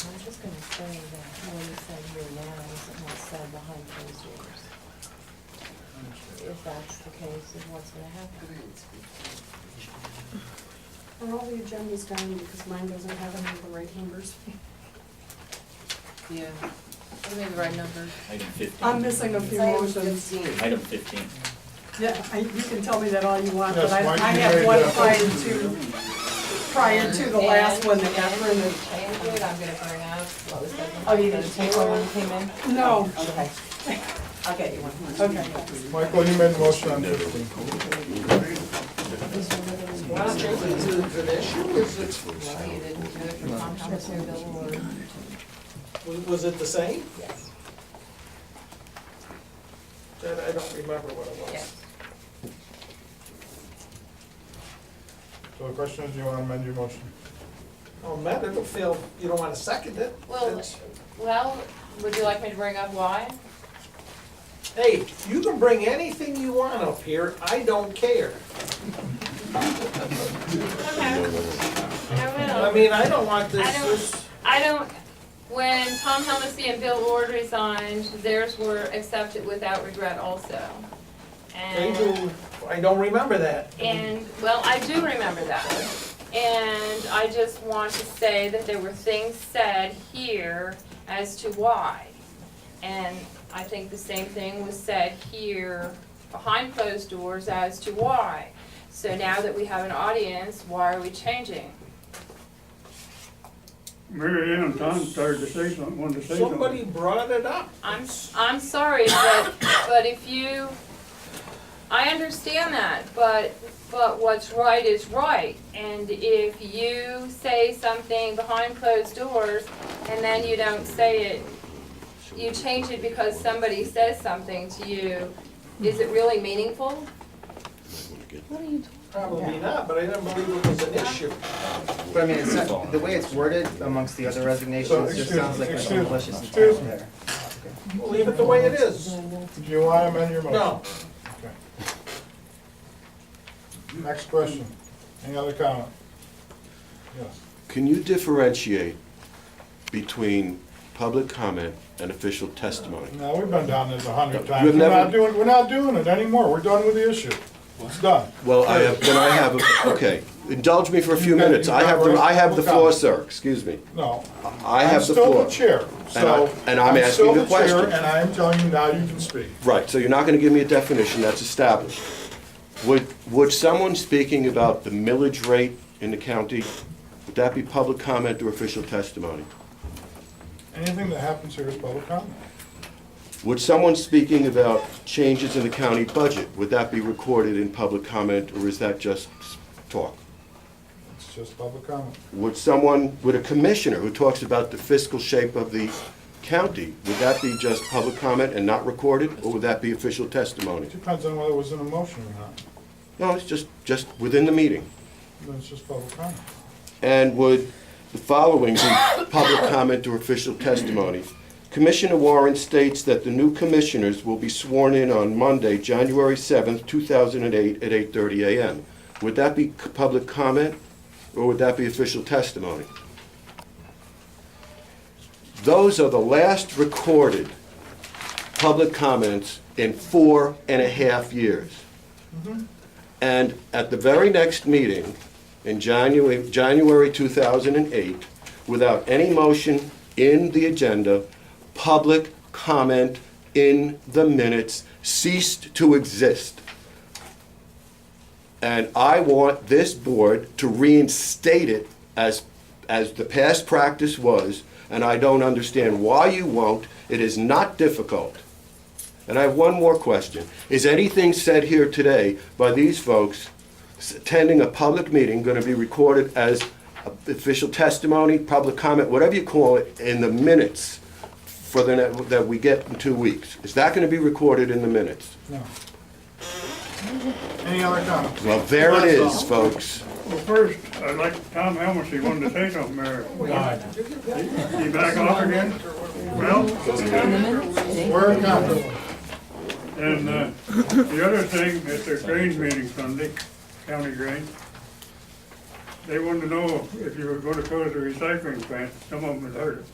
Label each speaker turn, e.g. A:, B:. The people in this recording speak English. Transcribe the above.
A: if that's the case, is what's gonna happen.
B: Are all the agendas down because mine doesn't have any of the right numbers?
A: Yeah, give me the right number.
C: Item fifteen.
B: I'm missing a few motions.
C: Item fifteen.
B: Yeah, I- you can tell me that all you want, but
D: Yes,
B: I
D: why don't
B: I
D: you
B: have
D: make
B: one
D: that-
B: prior to, prior to the last one that got printed.
A: And good, I'm gonna bring up, what was that?
B: Oh, you didn't
A: take one when you came in?
B: No,
A: Okay. I'll get you one.
B: okay.
D: Michael, you made a motion on fifteen.
E: Was- Was it the same?
A: Yes,
E: That- I don't remember what it was.
A: yes.
D: So the question is, do you want to amend your motion?
E: Oh, man, it'll feel, you don't want to second it.
A: Well,
E: It's-
A: well, would you like me to bring up why?
E: Hey, you can bring anything you want up here, I don't care. I
A: I will.
E: mean, I don't want this,
A: I don't-
E: this-
A: I don't, when Tom Helmsley and Bill Ward resigned, theirs were accepted without regret also.
E: they
A: And.
E: do, I don't remember that.
A: And, well, I do remember that. And I just want to say that there were things said here as to why. And I think the same thing was said here behind closed doors as to why. So now that we have an audience, why are we changing?
F: Mary Ann and Tom started to say something, wanted to say something.
E: Somebody brought it up.
A: I'm, I'm sorry, but, but if you, I understand that, but, but what's right is right. And if you say something behind closed doors and then you don't say it, you change it because somebody says something to you, is it really meaningful?
E: Probably not, but I didn't believe it was an issue.
G: But I mean, it's not, the way it's worded amongst the other
D: So,
G: resignations just
D: excuse-
G: sounds like an
D: excuse-
G: malicious
D: excuse
G: intent
D: me.
G: there.
E: Leave it the way it is.
D: Do you want to amend your motion?
E: No,
D: Next question. Any other comment? Yes.
H: Can you differentiate between public comment and official testimony?
D: No, we've been down this a hundred
H: We've
D: times. We're not
H: never-
D: doing, we're not doing it anymore. We're done with the issue. It's done.
H: Well, I have, then I have, okay, indulge me for a few minutes. I have, the I have the floor, sir, excuse me.
D: No.
H: I have the floor.
D: I'm still the chair, so.
H: I- and I'm asking
D: still
H: the
D: chair,
H: question.
D: And I am telling you now you can speak.
H: Right, so you're not gonna give me a definition, that's established. Would, would someone speaking about the millage rate in the county, would that be public comment or official testimony?
D: Anything that happens here is public comment.
H: Would someone speaking about changes in the county budget, would that be recorded in public comment, or is that just talk?
D: It's just public comment.
H: Would someone, would a commissioner who talks about the fiscal shape of the county, would that be just public comment and not recorded, or would that be official testimony?
D: Depends on whether it was an emotion or not.
H: No, it's just, just within the meeting.
D: Then it's just public comment.
H: And would the following be public comment or official testimony? Commissioner Warren states that the new commissioners will be sworn in on Monday, January 7th, 2008, at 8:30 a.m. Would that be c- public comment, or would that be official testimony? Those are the last recorded public comments in four and a half years. And at the very next meeting, in January, January 2008, without any motion in the agenda, public comment in the minutes ceased to exist. And I want this board to reinstate it as, as the past practice was, and I don't understand why you won't. It is not difficult. And I have one more question. Is anything said here today by these folks s- attending a public meeting going to be recorded as official testimony, public comment, whatever you call it, in the minutes for the, ne- that we get in two weeks? Is that going to be recorded in the minutes?
D: No. Any other comments?
H: Well, there it is, folks.
F: Well, first, I'd like, Tom Helmsley wanted to say something, Mary. You back off again? Well,
D: We're in compromise.
F: and, uh, the other thing, at their grain meeting Sunday, county grain, they wanted to know if you were gonna close the recycling plant, some of them had heard it.